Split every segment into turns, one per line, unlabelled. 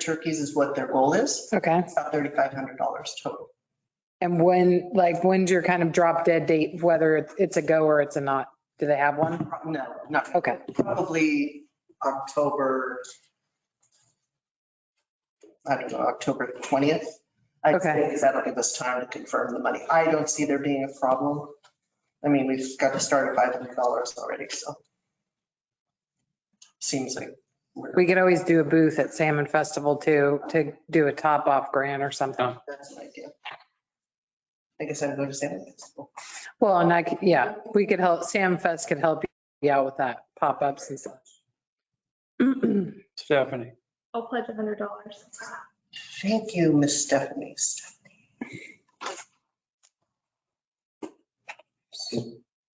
turkeys is what their goal is.
Okay.
It's about $3,500 total.
And when, like, when's your kind of drop dead date, whether it's- it's a go or it's a not? Do they have one?
No, not
Okay.
probably October, I don't know, October 20th. I'd
Okay.
say, because that'll give us time to confirm the money. I don't see there being a problem. I mean, we've got to start at $500 already, so. Seems like we're,
We could always do a booth at Salmon Festival too, to do a top off grant or something.
that's an idea. I guess I'm going to San Francisco.
Well, and I, could- yeah, we could help, Sam Fest could help you out with that, pop-ups and stuff.
Stephanie.
I'll pledge a hundred dollars.
Thank you, Miss Stephanie.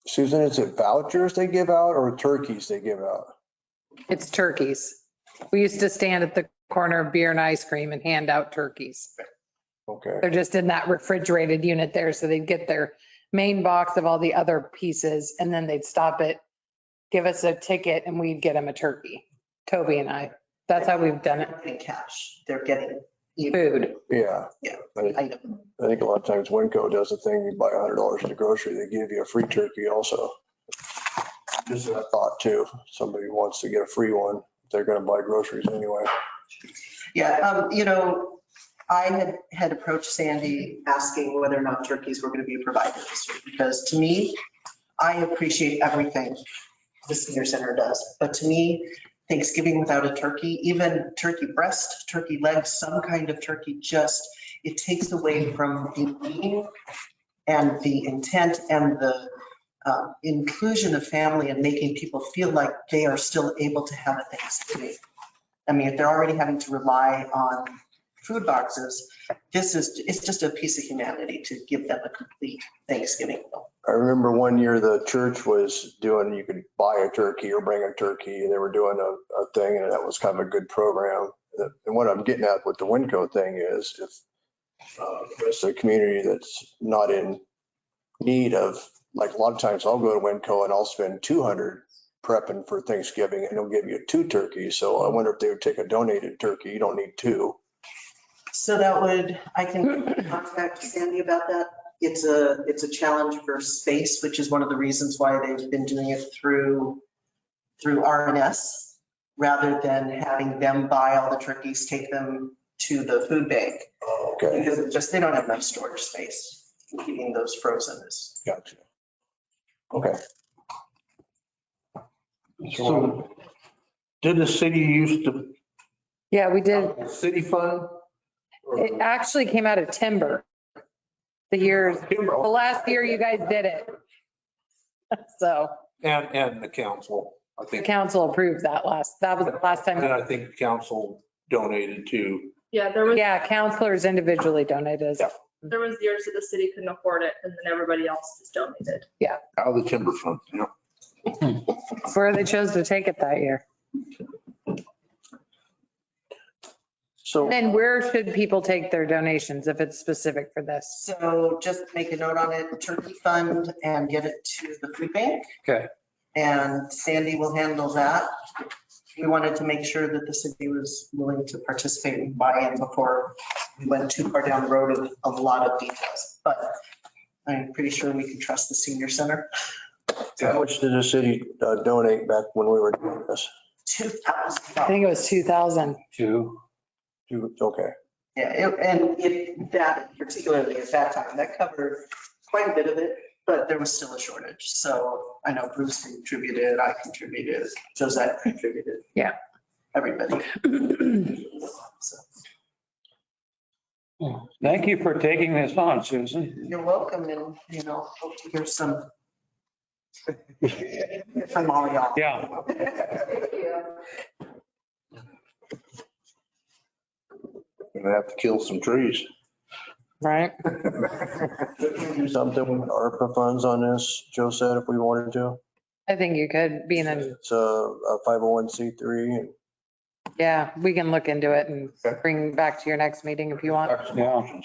Susan, is it vouchers they give out or turkeys they give out?
It's turkeys. We used to stand at the corner of beer and ice cream and hand out turkeys.
Okay,
They're just in that refrigerated unit there, so they'd get their main box of all the other pieces and then they'd stop it, give us a ticket and we'd get them a turkey. Toby and I, that's how we've done it.
They're getting cash. They're getting even
Food.
yeah.
Yeah.
I think-
item.
I think a lot of times Winco does a thing, you buy a hundred dollars at the grocery, they give you a free turkey also. Just a thought too, somebody wants to get a free one, they're gonna buy groceries anyway.
Yeah, um, you know, I had, had approached Sandy asking whether or not turkeys were gonna be provided this year, because to me, I appreciate everything the senior center does, but to me, Thanksgiving without a turkey, even turkey breast, turkey legs, some kind of turkey, just, it takes away from the meaning and the intent and the uh, inclusion of family and making people feel like they are still able to have a Thanksgiving. I mean, if they're already having to rely on food boxes, this is, it's just a piece of humanity to give them a complete Thanksgiving. meal.
I remember one year the church was doing, you could buy a turkey or bring a turkey, and they were doing a, a thing, and that was kind of a good program. And what I'm getting at with the Winco thing is if uh, there's a community that's not in need of, like, a lot of times I'll go to Winco and I'll spend 200 prepping for Thanksgiving, and they'll give you two turkeys, so I wonder if they would take a donated turkey, you don't need two.
So that would, I can contact Sandy about that. It's a, it's a challenge for space, which is one of the reasons why they've been doing it through, through RNS, rather than having them buy all the turkeys, take them to the food bank,
Okay,
because it just, they don't have enough storage space. Keeping those frozen is
gotcha. Okay,
So did the city use the
Yeah, we did.
city fund?
It actually came out of timber. The years, the
Timber
last year you guys did it. So
And, and the council, I
the
think.
council approved that last, that was the last
And
time.
I think the council donated too.
Yeah, there was,
Yeah, counselors individually donated.
Yeah.
there was years that the city couldn't afford it and then everybody else just donated.
Out of the timber fund, yeah.
It's where they chose to take it that year.
so.
And where should people take their donations if it's specific for this?
So just make a note on it, turkey fund, and get it to the food bank.
Okay.
And Sandy will handle that. We wanted to make sure that the city was willing to participate and buy in before we went too far down the road of a lot of details. But I'm pretty sure we can trust the senior center.
How much did the city uh, donate back when we were doing this?
Two
I
thousand.
think it was 2000.
Two.
You- Okay,
Yeah, it- and it, that particularly at that time, that covered quite a bit of it, but there was still a shortage. So I know Bruce contributed, I contributed, Josette contributed.
Yeah.
Everybody. So,
Thank you for taking this on, Susan.
You're welcome and, you know, hope to hear some from all y'all.
Yeah.
We're gonna have to kill some trees.
Right?
do something with ARPA funds on this, Joe said, if we wanted to.
I think you could be in a,
It's a a 501c3 and
yeah, we can look into it and bring back to your next meeting if you want.
Yeah.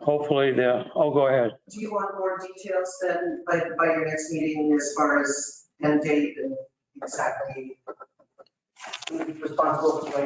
Hopefully the, oh, go ahead.
Do you want more details then by, by your next meeting as far as end date and exactly responsible for like